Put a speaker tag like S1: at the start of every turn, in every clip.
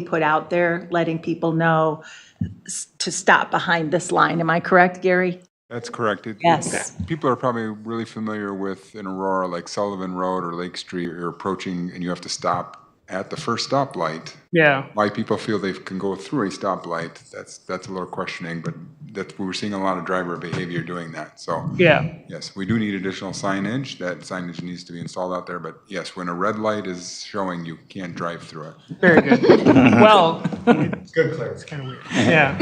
S1: be put out there, letting people know s- to stop behind this line. Am I correct, Gary?
S2: That's correct. It- it-
S1: Yes.
S2: People are probably really familiar with in Aurora, like Sullivan Road or Lake Street, you're approaching and you have to stop at the first stoplight.
S3: Yeah,
S2: Why people feel they can go through a stoplight, that's, that's a little questioning, but that's, we're seeing a lot of driver behavior doing that. So
S3: yeah,
S2: yes, we do need additional signage. That signage needs to be installed out there. But yes, when a red light is showing, you can't drive through it.
S3: very good. Well,
S2: Good clarification.
S3: yeah,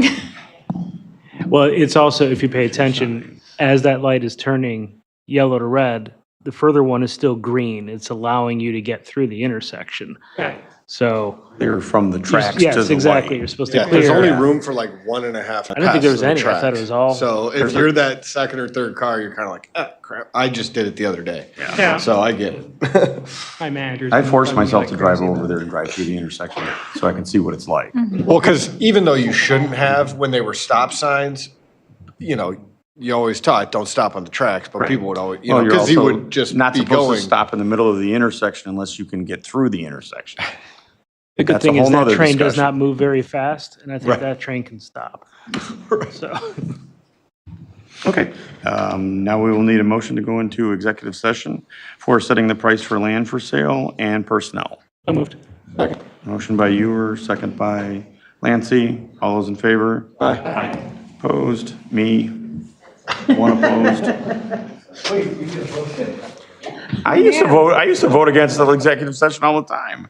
S4: Well, it's also, if you pay attention, as that light is turning yellow to red, the further one is still green. It's allowing you to get through the intersection.
S3: Right.
S4: So,
S5: Clear from the tracks to the
S4: yes,
S5: light.
S4: exactly. You're supposed to
S6: Yeah, there's
S4: clear.
S6: only room for like one and a half. I
S4: didn't think there was any. I thought it was all-
S6: So if you're that second or third car, you're kind of like, ah, crap. I just did it the other day.
S3: Yeah.
S6: So I get it.
S3: my manager's.
S5: I
S3: been
S5: force
S3: bugging me
S5: myself
S3: like
S5: to drive
S3: crazy
S5: over
S3: about
S5: there and drive through the intersection so I can see what it's like.
S6: well, because even though you shouldn't have, when they were stop signs, you know, you always taught don't stop on the tracks, but people would always, you know,
S5: Well, you're
S6: because he
S5: also
S6: would just
S5: Not
S6: be
S5: supposed
S6: going.
S5: to stop in the middle of the intersection unless you can get through the intersection.
S4: The good
S5: That's a
S4: thing is
S5: whole
S4: that
S5: nother
S4: train does
S5: discussion.
S4: not move very fast, and I think
S5: Right.
S4: that train can stop. So,
S5: Okay, um, now we will need a motion to go into executive session for setting the price for land for sale and personnel.
S4: I moved.
S5: Motion by Ewer, second by Lancy. All those in favor? Aye. Opposed? Me? One opposed? I used to vote, I used to vote against the executive session all the time.